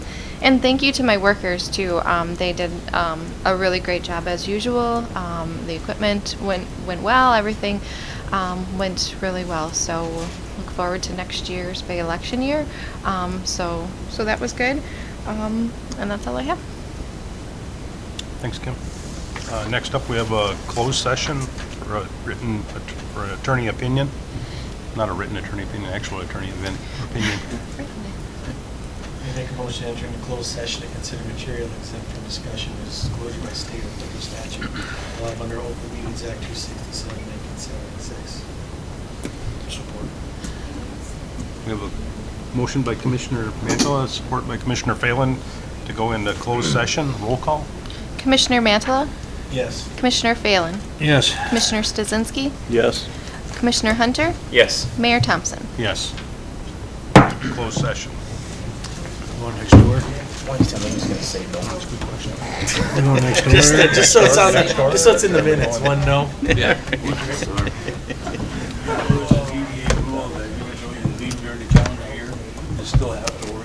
And thank you to my workers too. Um, they did um, a really great job as usual. Um, the equipment went went well. Everything um, went really well. So we'll look forward to next year's big election year. Um, so so that was good. Um, and that's all I have. Thanks, Kim. Uh, Next up, we have a closed session for a written, att- for an attorney opinion. Not a written attorney opinion, actual attorney event opinion. I make a motion to enter into closed session to consider material exempt from discussion as disclosure by state or federal statute allowed under Open Meetings Act 267, 1976. Support. We have a motion by Commissioner Mantala, support by Commissioner Phelan to go into closed session. Roll call? Commissioner Mantala, Yes. Commissioner Phelan, Yes. Commissioner Stasinski, Yes. Commissioner Hunter, Yes. Mayor Thompson. Yes. Closed session. Go next door. Just, just so it's on, just so it's in the minutes, one no. rules of DDA rule that even though you leave during the calendar year, you still have